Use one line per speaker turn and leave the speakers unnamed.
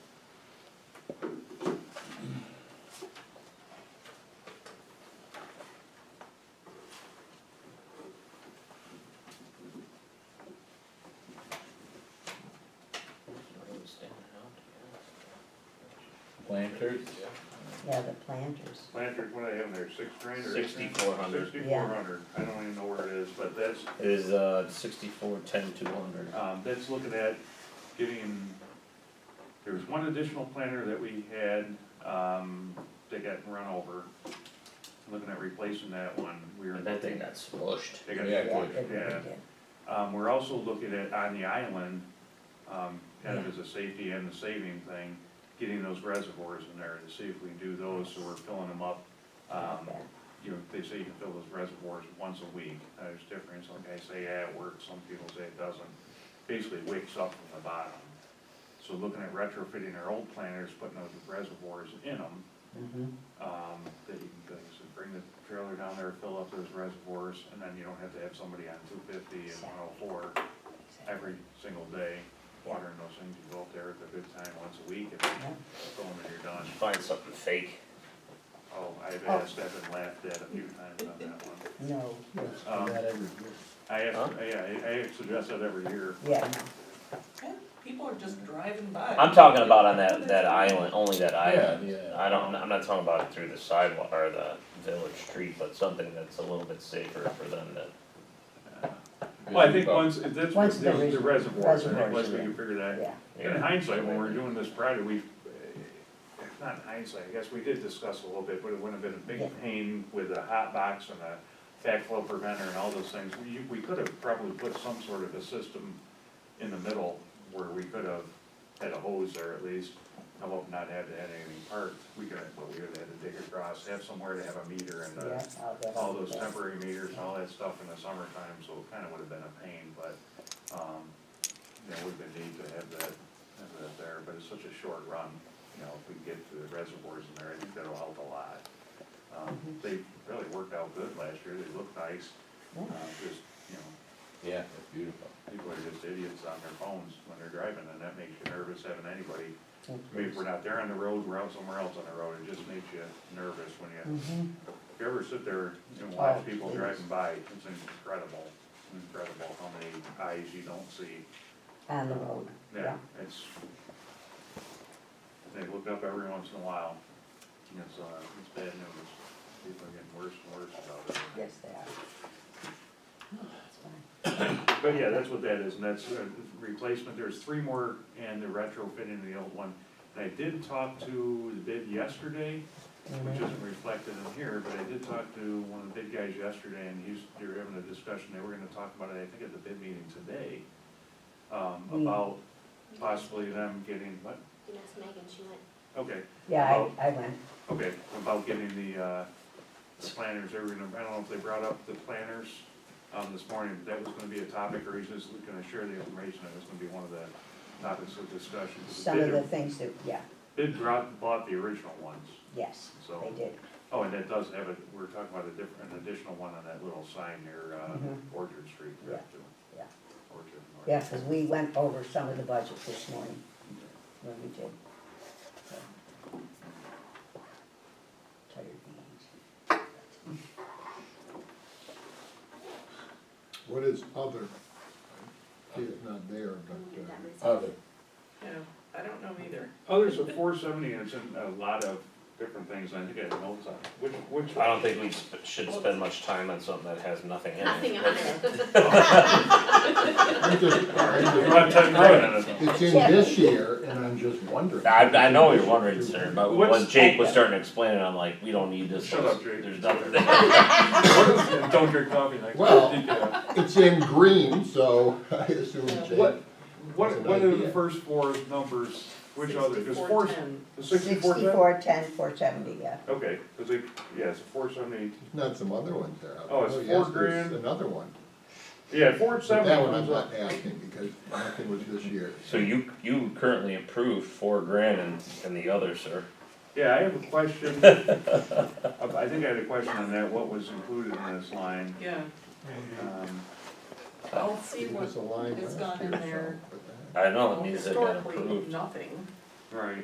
planters,
yeah, the planters.
Planters, what do they have in there, six grand or?
Sixty-four hundred.
Sixty-four hundred, I don't even know where it is, but that's,
It is, uh, sixty-four, ten, two hundred.
um, that's looking at getting, there was one additional planter that we had, um, that got run over. Looking at replacing that one, we were.
That thing got smushed.
They got-
Yeah,
Yeah,
good,
they really
yeah.
did.
Um, we're also looking at, on the island, um, kind of as a safety and the saving thing, getting those reservoirs in there to see if we can do those, so we're filling them up. Um, you know, they say you can fill those reservoirs once a week, Uh, there's different, some guys say, yeah, it works, some people say it doesn't. Basically it wakes up from the bottom. So looking at retrofitting our old planters, putting those reservoirs in them,
Mhm.
um, that you can, like, so bring the trailer down there, fill up those reservoirs, and then you don't have to have somebody on two fifty and one oh four every single day, watering those things, you go up there at the good time, once a week, and
Yeah.
fill them and you're done.
Find something fake.
Oh, I've asked, I've been laughed at a few times on that one.
No,
Um,
not every year.
I
Huh?
have, yeah, I, I suggest that every year.
yeah,
Yeah, People are just driving by.
I'm talking about on that, that island, only that island.
yeah.
I don't, I'm not talking about it through the sidewalk or the village street, but something that's a little bit safer for them to.
Well, I think once, if that's,
Once the
the the
res-
reservoirs, I think
reservoirs,
once we
yeah.
can figure that.
yeah,
In hindsight, when we were doing this project, we, eh, not in hindsight, I guess we did discuss a little bit, but it would have been a
Yeah.
big pain with a hot box and a backflow preventer and all those things. We, you- we could have probably put some sort of a system in the middle where we could have had a hose there at least. I hope not have to have anything parked, we could, have- but we would have had to dig across, have somewhere to have a meter and
yeah,
a
I'll get
Uh, all
on
those
that.
temporary meters and all that stuff in the summertime, so it kinda would've been a pain, but, um, you know, would've been neat to have that, have that there, but it's such a short run, you know, if we can get to the reservoirs in there, I think that'll help a lot. Um, they really worked out good last year, they looked nice, uh, just, you know,
Yeah, it's beautiful.
people are just idiots on their phones when they're driving, and that makes you nervous having anybody.
Mhm.
Maybe if we're not there on the road, we're out somewhere else on the road, it just makes you nervous when you
Mhm.
if you ever sit there and watch
Oh,
people
please.
driving by, it's incredible, incredible how many eyes you don't see.
On the road,
Yeah,
yeah,
it's, they look up every once in a while, and it's, uh, it's bad news. People are getting worse and worse about it.
yes, they are. No, that's fine.
But yeah, that's what that is, and that's a replacement, there's three more and the retrofitting of the old one. And I did talk to the bid yesterday, which
Mhm.
isn't reflected in here, but I did talk to one of the bid guys yesterday, and he's, they were having a discussion, they were gonna talk about it, I think at the bid meeting today, um,
Hmm.
about possibly them getting, what,
You asked Megan, she went,
okay,
Yeah, I, I went,
okay, about getting the, uh, the planners, they were gonna, I don't know if they brought up the planners, um, this morning, but that was gonna be a topic, or he's just gonna share the information, that was gonna be one of the topics of discussion.
some of the things that, yeah,
Bid brought, bought the original ones,
yes,
so.
they did,
Oh, and that does have a, we're talking about a different, an additional one on that little sign near, uh,
Mm-hmm.
Mhm.
Orchard Street,
Yeah,
correct, too?
yeah.
Orchard. and Orchard.
yeah, because we went over some of the budget this morning, when we did. So. Tired beans.
What is other? See, it's not there,
"Mm,
but,
that
uh,
makes
Other,
Yeah, I don't know either.
Others at Oh, four seventy, and it's in a lot of different things, and I think I have notes on, it. which, which.
I don't think we sp- should spend much time on something that has nothing in it.
nothing on
Let's-
it.
uh, I'm just-
You don't have time to write on it.
It's in this year, and I'm just wondering.
I, I know you're wondering, sir, but when
What's-
Jake was starting to explain it, I'm like, we don't need this,
Shut up, Jake.
there's nothing there.
And Don't drink coffee like.
Well-
Yeah.
It's in green, so I assume Jake.
What, what,
That's an
what are the
idea.
first four numbers, which other, cause four,
6410.
the sixty-four ten?
Sixty-four, ten, four seventy, yeah.
Okay, cause they, yeah, it's four seventy,
Not some other ones there.
Oh, it's
yes,
four
there's
grand.
Another one.
yeah, four
But
seventy.
that one I'm not asking, because nothing was this year.
So you, you currently approved four grand and, and the other, sir.
Yeah, I have a question. I think I had a question on that, what was included in this line?
Yeah,
Um,
I'll see
It
what,
was a line
it's gone
last year,
in there.
so, but that-
I know,
well,
it means they've been
historically,
approved.
nothing.
Right.